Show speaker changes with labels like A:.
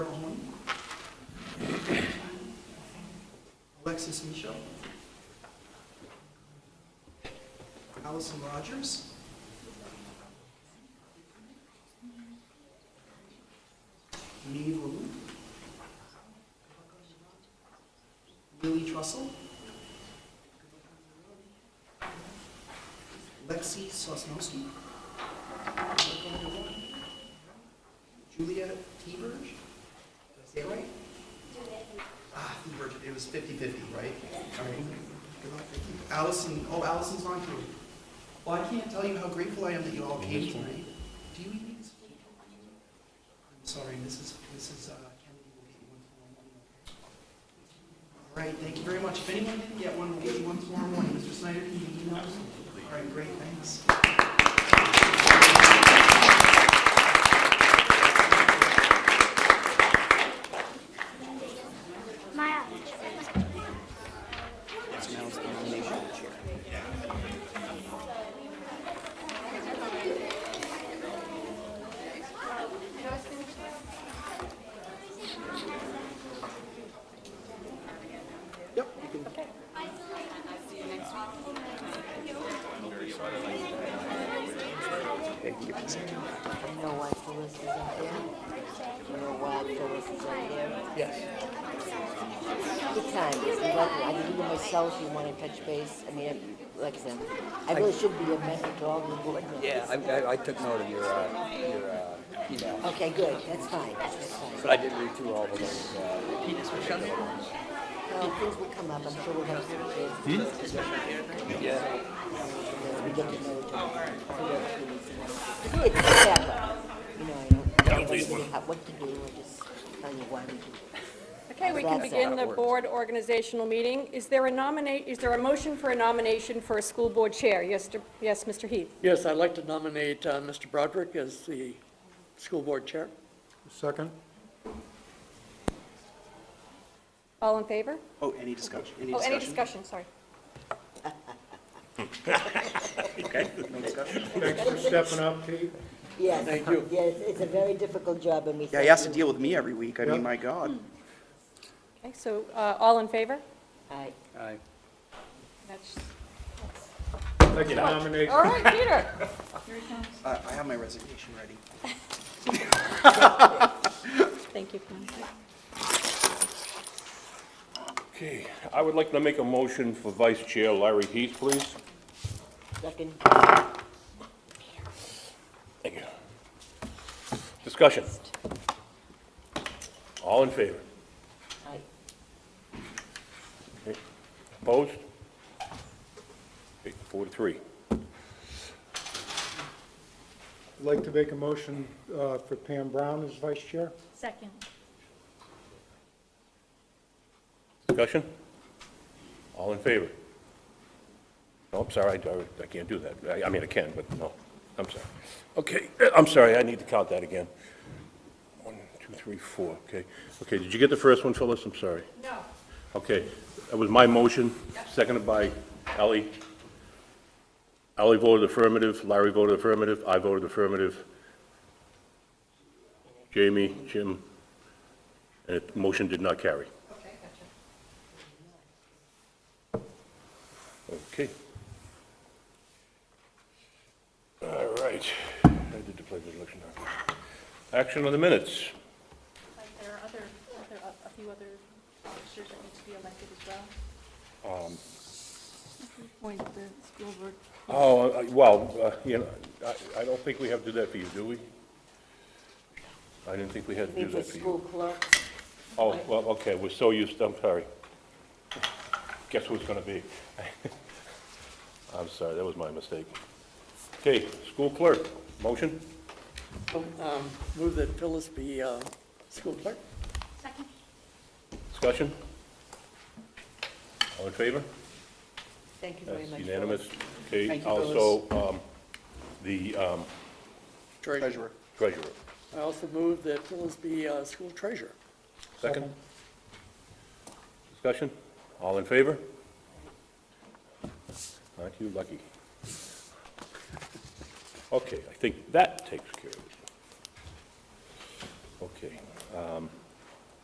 A: Alexis Michel, Allison Rogers, Mei Wu, Lily Trussell, Lexi Sosnowski, Julia Teberge, did I say it right? Ah, Hubert, it was 50-50, right? All right. Good luck, thank you. Allison, oh, Allison's on here. Well, I can't tell you how grateful I am that you all came tonight. Do you need this? I'm sorry, Mrs. Mrs. uh, Kennedy will get you one tomorrow morning. okay? All right, thank you very much. If anyone didn't get one, we'll get you one tomorrow morning. Mr. Snyder, can you email? Absolutely. All right, great, thanks.
B: Maya.
A: Yep, you can.
C: You know why Phyllis isn't there? You know why Phyllis isn't there?
A: Yes.
C: Good time, it's lovely. I mean, even myself, you want to touch base. I mean, like I said, I really should be a mentor to all the board members.
D: Yeah, I, I, I took note of your, uh, your, uh, email,
C: Okay, good, that's fine, that's fine.
D: but I didn't read through all of those, uh,
C: Well, things will come up, I'm sure we'll have some kids.
D: yeah.
C: We get to know each other. Good, it's backup. You know, I don't, I don't know how- what to do, I just tell you why we do it.
E: Okay, we can
C: That's
E: begin
D: how it
E: the
D: works.
E: board organizational meeting. Is there a nominate, is there a motion for a nomination for a school board chair? Yes, Dr- yes, Mr. Heath.
F: Yes, I'd like to nominate uh, Mr. Broderick as the school board chair.
G: Second?
E: All in favor?
A: Oh, any discussion?
E: Oh, any discussion, sorry.
G: Thanks for stepping up, Pete.
C: Yes.
F: Thank you.
C: Yes, it's a very difficult job, and we.
A: Yeah, he
C: thank
A: has to
C: you.
A: deal with me every week. I
G: Yeah.
A: mean, my God.
E: Okay, so, uh, all in favor?
C: Aye.
D: I,
E: That's-
G: I'd like to nominate,
E: All right, Peter.
A: Uh, I have my resignation ready.
E: Thank you. Pam.
H: Okay, I would like to make a motion for Vice Chair Larry Heath, please.
C: Second.
H: Thank you. Discussion. All in favor?
C: Aye.
H: Opposed? Okay, Four to three.
G: I'd like to make a motion uh, for Pam Brown as vice chair.
E: Second.
H: Discussion? All in favor? No, I'm sorry, I- I can't do that. I- I mean, I can, but no, I'm sorry. Okay, eh, I'm sorry, I need to count that again. One, two, three, four, okay. Okay, did you get the first one, Phyllis? I'm sorry.
E: No.
H: Okay, that was my motion, seconded by Ally. Ally voted affirmative, Larry voted affirmative, I voted affirmative. Jamie, Jim, and the motion did not carry. Okay. All right, I did the pledge of election. Action on the minutes.
I: Like there are other, other, a few other officers that need to be elected as well.
D: Um,
I: Point the school board.
H: Oh, uh, well, uh, you know, I- I don't think we have to do that for you, do we? I didn't think we had to
C: Be
H: do
C: the
H: that for you.
C: school clerk.
H: Oh, well, okay, we're so used, I'm sorry. Guess who it's gonna be? I'm sorry, that was my mistake. Okay, school clerk, motion?
F: Um, Move that Phyllis be uh, school clerk.
I: Second.
H: Discussion? All in favor?
C: Thank you very
H: That's
C: much.
H: unanimous. Okay,
A: Thank you, Phyllis.
H: also, um, the um,
A: Treasurer.
H: treasurer.
F: I also move that Phyllis be uh, school treasurer.
H: Second? Discussion? All in favor? Aren't you lucky? Okay, I think that takes care of it. Okay. um,